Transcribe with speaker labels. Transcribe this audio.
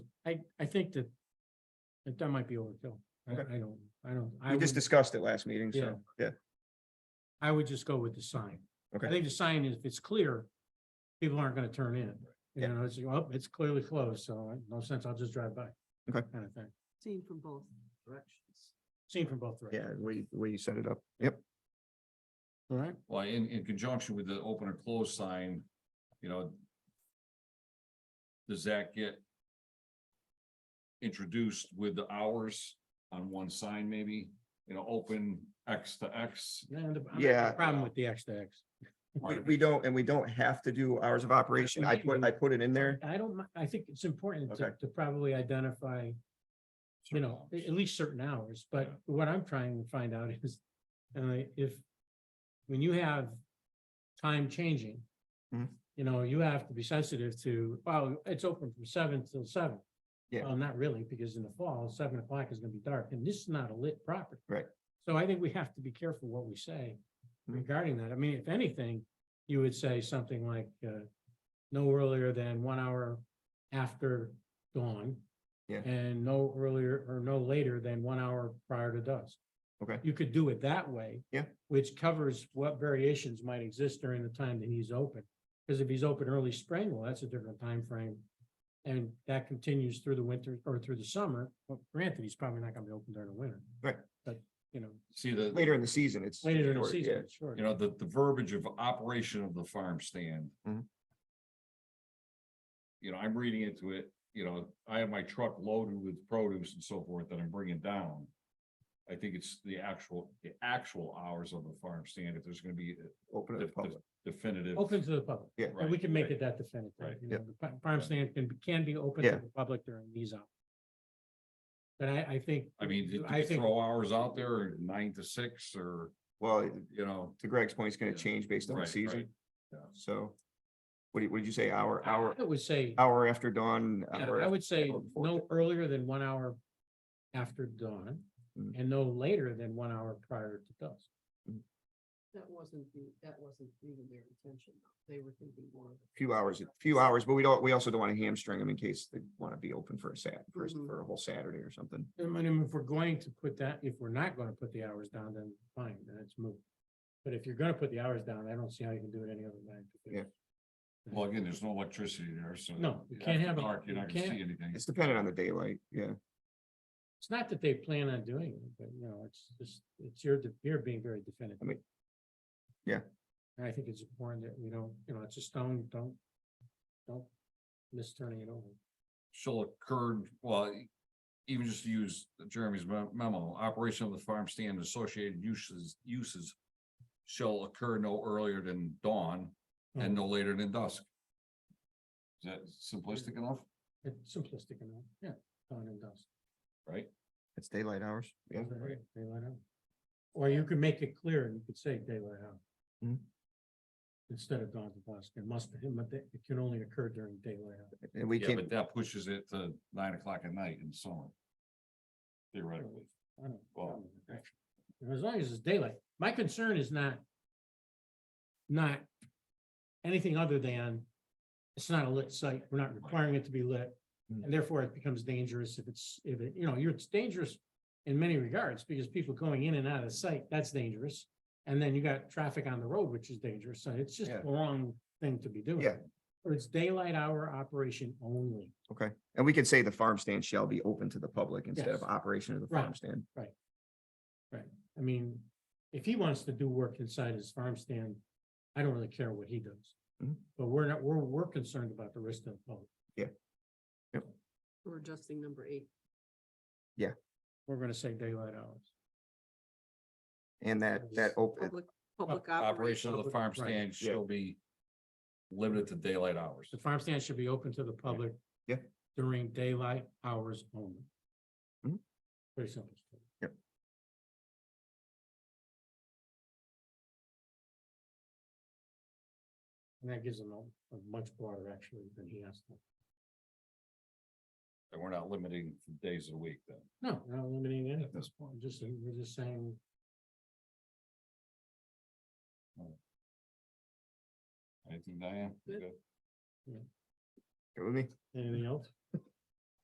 Speaker 1: I, I think that, that that might be overkill. I, I
Speaker 2: Okay.
Speaker 1: don't, I don't, I
Speaker 2: We just
Speaker 1: would,
Speaker 2: discussed it last meeting,
Speaker 1: Yeah.
Speaker 2: so, yeah,
Speaker 1: I would just go with the sign. I
Speaker 2: Okay.
Speaker 1: think the sign, if it's clear, people aren't gonna turn in. You
Speaker 2: Yeah.
Speaker 1: know, it's, oh, it's clearly closed, so I- no sense, I'll just drive by.
Speaker 2: Okay.
Speaker 1: Kind of thing,
Speaker 3: Seen from both directions.
Speaker 1: seen from both directions.
Speaker 2: yeah, we, we set it up, yep.
Speaker 1: All right,
Speaker 4: Well, in, in conjunction with the open or close sign, you know. Does that get? Introduced with the hours on one sign maybe, you know, open X to X.
Speaker 1: Yeah, and the- I'm not-
Speaker 2: Yeah.
Speaker 1: Problem with the X to X.
Speaker 2: We, we don't, and we don't have to do hours of operation. I put, I put it in there.
Speaker 1: I don't, mi- I think it's important to,
Speaker 2: Okay.
Speaker 1: to probably identify, you know, a- at least certain hours, but
Speaker 4: Yeah.
Speaker 1: what I'm trying to find out is, uh, if, when you have time changing,
Speaker 2: Mhm.
Speaker 1: you know, you have to be sensitive to, well, it's open from seven till seven.
Speaker 2: Yeah.
Speaker 1: Well, not really, because in the fall, seven o'clock is gonna be dark, and this is not a lit property.
Speaker 2: Right.
Speaker 1: So I think we have to be careful what we say
Speaker 2: Mhm.
Speaker 1: regarding that. I mean, if anything, you would say something like, uh, no earlier than one hour after dawn.
Speaker 2: Yeah.
Speaker 1: And no earlier or no later than one hour prior to dusk.
Speaker 2: Okay.
Speaker 1: You could do it that way.
Speaker 2: Yeah.
Speaker 1: Which covers what variations might exist during the time that he's open. Because if he's open early spring, well, that's a different time frame, And that continues through the winter or through the summer. Well, granted, he's probably not gonna be open during the winter.
Speaker 2: Right.
Speaker 1: But, you know,
Speaker 4: See the,
Speaker 2: Later in the season, it's.
Speaker 1: later in the
Speaker 2: short, yeah.
Speaker 1: season, sure.
Speaker 4: you know, the, the verbiage of operation of the farm stand.
Speaker 2: Mhm.
Speaker 4: You know, I'm reading into it, you know, I have my truck loaded with produce and so forth that I'm bringing down. I think it's the actual, the actual hours of the farm stand, if there's gonna be a-
Speaker 2: Open to the
Speaker 4: Def- def-
Speaker 2: public.
Speaker 4: definitive.
Speaker 1: Open to the public.
Speaker 2: Yeah.
Speaker 1: And we
Speaker 4: Right,
Speaker 1: can make
Speaker 4: right.
Speaker 1: it that definitive,
Speaker 4: Right,
Speaker 1: you know, the pri- prime stand can, be- can be open to
Speaker 2: Yeah.
Speaker 1: the public during these hours. But I, I think.
Speaker 4: I mean, do
Speaker 1: I
Speaker 4: you
Speaker 1: think,
Speaker 4: throw hours out there, nine to six, or,
Speaker 2: Well,
Speaker 4: you know.
Speaker 2: to Greg's point, it's gonna
Speaker 4: Yeah.
Speaker 2: change based on the
Speaker 4: right,
Speaker 2: season,
Speaker 4: right.
Speaker 2: so. What did, what did you say? Hour,
Speaker 1: I
Speaker 2: hour,
Speaker 1: I would say, yeah,
Speaker 2: hour after dawn? hour
Speaker 1: I would say
Speaker 2: hour before
Speaker 1: no earlier than one hour after dawn
Speaker 2: Mm.
Speaker 1: and no later than one hour prior to dusk.
Speaker 3: That wasn't the, that wasn't even their intention. though. They were thinking more of.
Speaker 2: a Few hours, a few hours, but we don't, we also don't wanna hamstring them in case they wanna be open for a Sat, for, a-
Speaker 1: Mm-hmm.
Speaker 3: Mhm.
Speaker 2: for a whole Saturday or something.
Speaker 1: I mean, if we're going to put that, if we're not gonna put the hours down, then fine, then it's moot. But if you're gonna put the hours down, I don't see how you can do it any other way.
Speaker 2: Yeah.
Speaker 4: Well, again, there's no electricity there, so.
Speaker 1: No, you
Speaker 4: after
Speaker 1: can't have a-
Speaker 4: dark, You're
Speaker 1: you
Speaker 4: not gonna
Speaker 1: can't-
Speaker 4: see anything.
Speaker 2: It's dependent on the daylight, yeah,
Speaker 1: It's not that they plan on doing it, but you know, it's just, it's your, de- you're being very definitive.
Speaker 2: I mean, yeah.
Speaker 1: And I think it's important that we don't, you know, it's a stone, don't, don't miss turning it over.
Speaker 4: Shall occur, well, e, even just to use Jeremy's me- memo, operation of the farm stand and associated uses, uses. Shall occur no earlier than dawn and no later than dusk. Is that simplistic enough,
Speaker 1: It's simplistic enough, yeah, dawn and dusk.
Speaker 4: right?
Speaker 2: it's daylight hours, yeah.
Speaker 1: Right, daylight hour. Or you could make it clear and you could say daylight hour.
Speaker 2: Mhm.
Speaker 1: Instead of dawn to dusk, it must, it mu- it can only occur during daylight hour.
Speaker 2: And we
Speaker 4: Yeah,
Speaker 2: can't,
Speaker 4: but that pushes it to nine o'clock at night in summer. Theoretically.
Speaker 1: I don't.
Speaker 4: Well-
Speaker 1: As long as it's daylight, my concern is not. Not anything other than, it's not a lit site, we're not requiring it to be lit.
Speaker 2: Mm.
Speaker 1: And therefore it becomes dangerous if it's, if it, you know, you're, it's dangerous in many regards, because people going in and out of the site, that's dangerous. And then you got traffic on the road, which is dangerous, so it's just
Speaker 2: Yeah.
Speaker 1: the wrong thing to be doing.
Speaker 2: Yeah.
Speaker 1: Or it's daylight hour operation only.
Speaker 2: okay, and we could say the farm stand shall be open to the public instead of
Speaker 1: Yes.
Speaker 2: operation of the
Speaker 1: Right.
Speaker 2: farm stand.
Speaker 1: I mean, if he wants to do work inside his farm stand, I don't really care what he does.
Speaker 2: Mhm.
Speaker 1: But we're not, we're, we're concerned about the rest of the public.
Speaker 3: We're adjusting number eight.
Speaker 1: We're gonna say daylight hours.
Speaker 2: And that, that open,
Speaker 3: Public, public
Speaker 4: Operation of the farm
Speaker 1: Right.
Speaker 4: stand
Speaker 2: Yeah.
Speaker 4: shall be limited to daylight hours.
Speaker 1: The farm stand should be open to the public.
Speaker 2: Yeah.
Speaker 1: During daylight hours only.
Speaker 2: Mhm.
Speaker 1: Pretty simple.
Speaker 2: Yep.
Speaker 1: And that gives him a, a much broader actually than he asked for.
Speaker 4: And we're not limiting the days of the week then.
Speaker 1: No, we're not limiting anything.
Speaker 4: this point.
Speaker 1: I'm just, we're just saying.
Speaker 4: Anything, Diane?
Speaker 3: Good.
Speaker 4: Good.
Speaker 2: Good with me?
Speaker 1: Anything else?